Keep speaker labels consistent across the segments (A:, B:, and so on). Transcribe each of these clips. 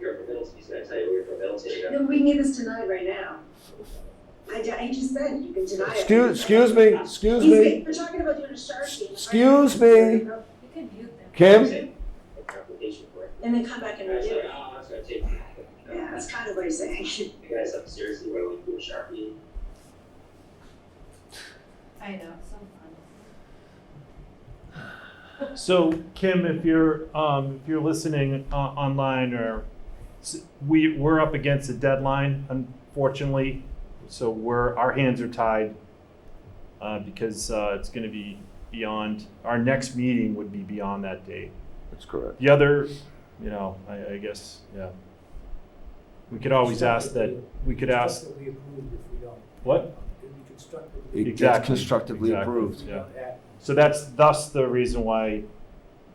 A: Milton, he's gonna tell you we're from Milton, you know?
B: No, we can get this denied right now. I, ju- I just said you can deny it.
C: Excuse, excuse me, excuse
B: He's-
C: me,
B: We're talking about doing a shark game.
C: Excuse me.
D: You could mute them.
C: Kim?
A: An application for it.
B: And then come back and
A: And I was
B: redo
A: like,
B: it.
A: oh, that's gonna take, you
B: Yeah, that's kind of what he's saying.
A: guys up seriously, why don't we do a Sharpie?
D: I know, so fun.
E: So Kim, if you're um, if you're listening uh, online, or s- we we're up against a deadline, unfortunately, so we're our hands are tied uh, because uh, it's going to be beyond our next meeting would be beyond that date.
C: That's correct.
E: The other, you know, I, I guess, yeah. We could always ask that. We could ask
F: Constructively approved if we don't. um,
E: what?
F: It'd be constructively.
C: It gets
E: Exactly,
C: constructively
E: exactly.
C: approved.
F: if we don't act.
E: So that's thus the reason why,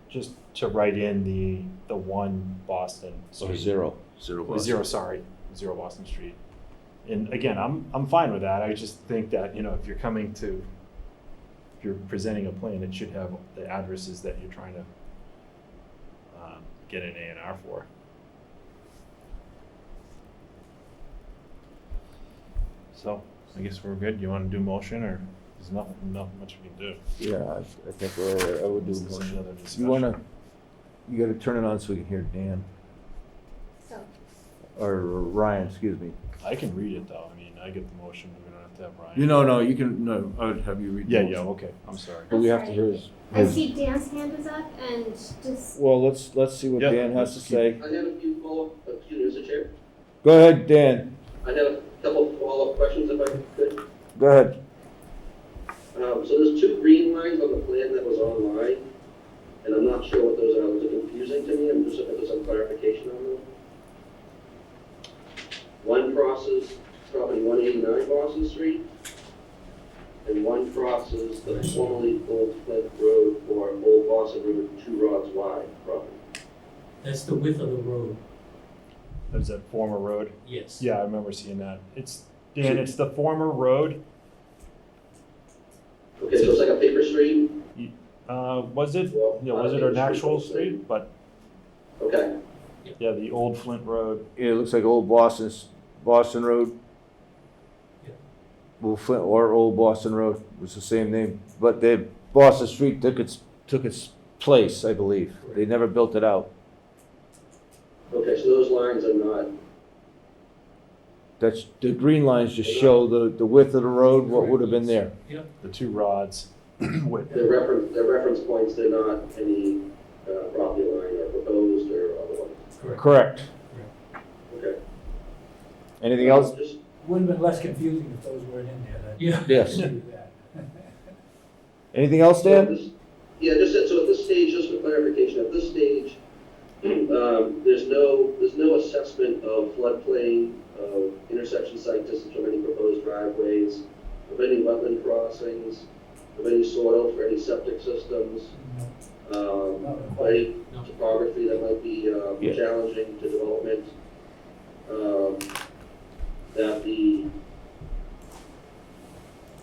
E: just to write in the the one Boston.
C: Or
E: Street.
C: zero, zero
E: Well,
C: Boston.
E: Zero, sorry, zero Boston Street. And again, I'm, I'm fine with that. I just think that, you know, if you're coming to, if you're presenting a plan, it should have the addresses that you're trying to um, get an A and R for. So I guess we're good. You want to do motion or there's nothing, nothing much we can do?
C: Yeah, I- I think we're, I would do
E: This is
C: motion.
E: another
C: You wanna, you gotta turn it on so we can hear Dan,
D: So,
C: or Ryan, excuse me.
E: discussion. I can read it though. I mean, I get the motion. We don't have to have Ryan.
C: You know, no, you can, no, I would have you read. the
E: Yeah, yeah,
C: motion.
E: okay. I'm sorry.
C: But we have to hear his.
G: I see Dan's hand is up and just,
C: Well, let's, let's see what
E: Yeah.
C: Dan has to say.
H: I have a few follow-up, excuse me, Mr. Chair.
C: Go ahead, Dan,
H: I have a couple follow-up questions if I could.
C: go ahead.
H: Um, so there's two green lines on the plan that was online, and I'm not sure what those are. Those are confusing to me. I'm just looking for some clarification on them. One crosses property one eighty-nine Boston Street, and one crosses the formerly Old Flint Road or Old Boston River two rods wide property.
F: That's the width of the road,
E: There's that former road.
F: yes.
E: Yeah, I remember seeing that. It's Dan. It's the former road.
H: Okay, so it's like a paper street?
E: Uh, was it?
H: Well,
E: Yeah,
H: I
E: was it
H: think
E: an
H: it's
E: actual
H: pretty close.
E: street? But
H: Okay.
E: yeah, the old Flint Road.
C: Yeah, it looks like old Boston's, Boston Road.
F: Yeah.
C: Well, Flint or Old Boston Road was the same name, but they, Boston Street took its, took its place, I believe. They never built it out.
H: Okay, so those lines are not
C: That's, the green lines just show the, the width of the road, what would have been there.
E: The two rods. with
H: The reference, the reference points, they're not any uh, property line or proposed or otherwise.
C: Correct.
H: Okay.
C: Anything else?
H: Just-
F: Would have been less confusing if those weren't in there. Yeah.
C: Yes. Anything else, Dan?
H: Yeah, just, that- so at this stage, just for clarification, at this stage, um, there's no, there's no assessment of floodplain, of intersection site distance from any proposed driveways, of any wetland crossings, of any soil for any septic systems, um, of any topography that might be, um,
C: Yeah.
H: challenging to development. Um, that the,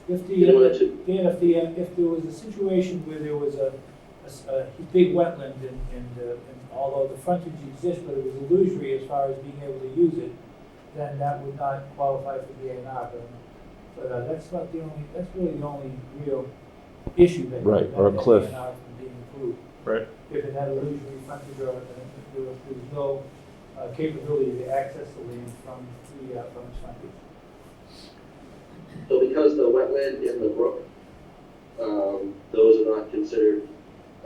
F: If
H: in
F: the,
H: order
F: uh,
H: to
F: Dan, if the, if there was a situation where there was a, a s- a big wetland and, and, uh, and although the frontage exists, but it was illusory as far as being able to use it, then that would not qualify for the A and R, but, but uh, that's not the only, that's really the only real issue that.
C: Right, or a
F: that
C: cliff.
F: A and R from being approved.
E: Right.
F: If it had illusory frontage or, uh, if there was, there was no uh, capability to access the land from the, uh, from its frontage.
H: So because the wetland and the brook, um, those are not considered,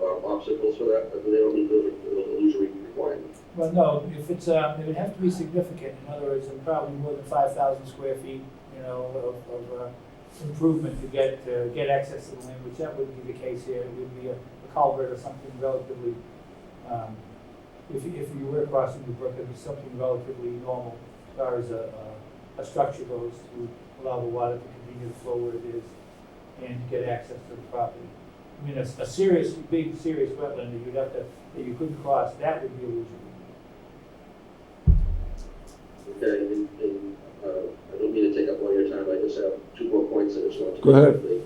H: uh, obstacles for that, but they don't meet those those illusory requirements.
F: Well, no, if it's, uh, it would have to be significant, in other words, and probably more than five thousand square feet, you know, of, of, uh, improvement to get, to get access to the land, which that wouldn't be the case here, it would be a a culvert or something relatively, um, if, you- if you were crossing the brook, it'd be something relatively normal as far as a, a, a structure goes to allow the water to continue to flow where it is and to get access to the property. I mean, a, a serious, big, serious wetland that you'd have to, that you couldn't cross, that would be illusory.
H: Okay, and, and, uh, I don't mean to take up all your time, I just have two more points that I just want to.
C: Go ahead.
H: quickly. Um,